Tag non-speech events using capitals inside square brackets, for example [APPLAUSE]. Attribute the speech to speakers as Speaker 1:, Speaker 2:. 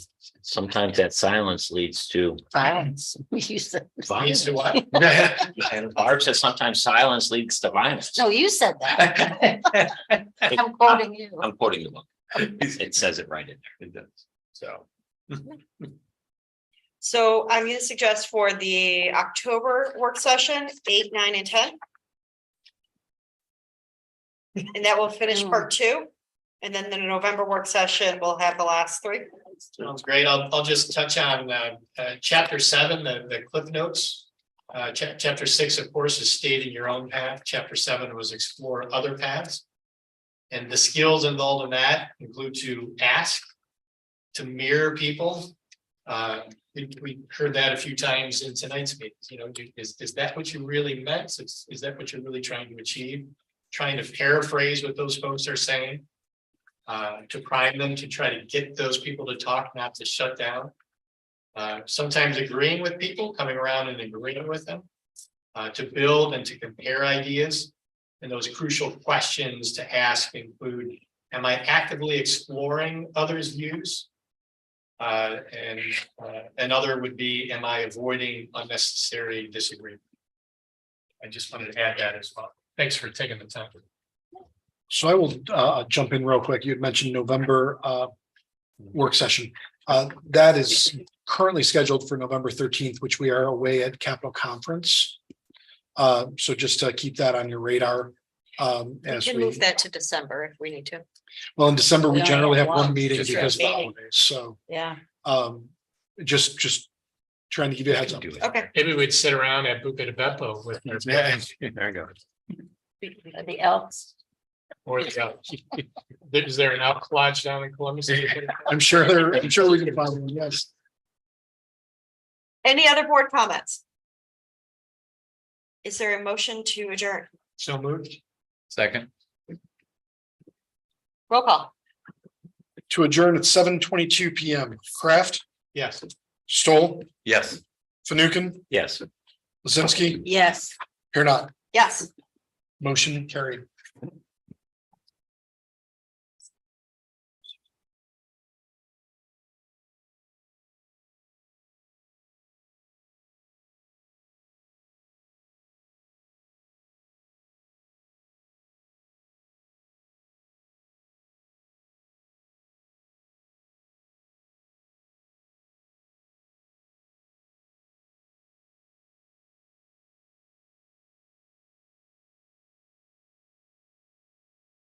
Speaker 1: sometimes that silence leads to.
Speaker 2: violence. [LAUGHS] We used to.
Speaker 1: Violence.
Speaker 3: what?
Speaker 1: [LAUGHS] Barb says sometimes silence leads to violence. [LAUGHS]
Speaker 2: No, you said that. I'm quoting you.
Speaker 1: I'm quoting the book. It says it right in there.
Speaker 3: It does. So.
Speaker 4: So I'm gonna suggest for the October work session, eight, nine, and ten. And that will finish part two, and then the November work session, we'll have the last three.
Speaker 3: Sounds great. I'll, I'll just touch on, uh, uh, chapter seven, the, the cliff notes. Uh, chap, chapter six, of course, is stayed in your own path. Chapter seven was explore other paths. And the skills involved in that include to ask, to mirror people. Uh, we, we heard that a few times in tonight's meetings, you know, do- is, is that what you really meant? Is, is that what you're really trying to achieve? Trying to paraphrase what those folks are saying uh, to prime them, to try to get those people to talk, not to shut down. Uh, sometimes agreeing with people, coming around and agreeing with them. Uh, to build and to compare ideas. And those crucial questions to ask include, am I actively exploring others' views? Uh, and, uh, another would be, am I avoiding unnecessary disagreement? I just wanted to add that as well. Thanks for taking the time.
Speaker 5: So I will uh jump in real quick. You had mentioned November uh work session. Uh, that is currently scheduled for November thirteenth, which we are away at Capitol Conference. Uh, so just to keep that on your radar. Um, as we,
Speaker 4: that to December if we need to.
Speaker 5: well, in December,
Speaker 2: We
Speaker 5: we
Speaker 2: only
Speaker 5: generally
Speaker 2: have
Speaker 5: have one
Speaker 2: one.
Speaker 5: meeting
Speaker 1: Just
Speaker 5: because of the
Speaker 2: have one.
Speaker 5: holidays, so
Speaker 2: Yeah.
Speaker 5: um just just trying to give you a heads up.
Speaker 4: Okay,
Speaker 3: Maybe we'd sit around at Buca de Beppo with. our-
Speaker 5: Yeah.
Speaker 1: There you go.
Speaker 2: The elks.
Speaker 3: Or the out. [LAUGHS] Is there an elk lodge down in Columbus?
Speaker 5: I'm sure there, I'm sure we can find one, yes.
Speaker 4: any other board comments? Is there a motion to adjourn?
Speaker 3: So moved.
Speaker 1: Second.
Speaker 4: Roll call.
Speaker 5: To adjourn at seven twenty-two PM. Kraft,
Speaker 3: Yes.
Speaker 5: Stoll,
Speaker 1: Yes.
Speaker 5: Fanukin,
Speaker 1: Yes.
Speaker 5: Lizinski,
Speaker 2: Yes.
Speaker 5: here not.
Speaker 4: Yes.
Speaker 5: Motion carried.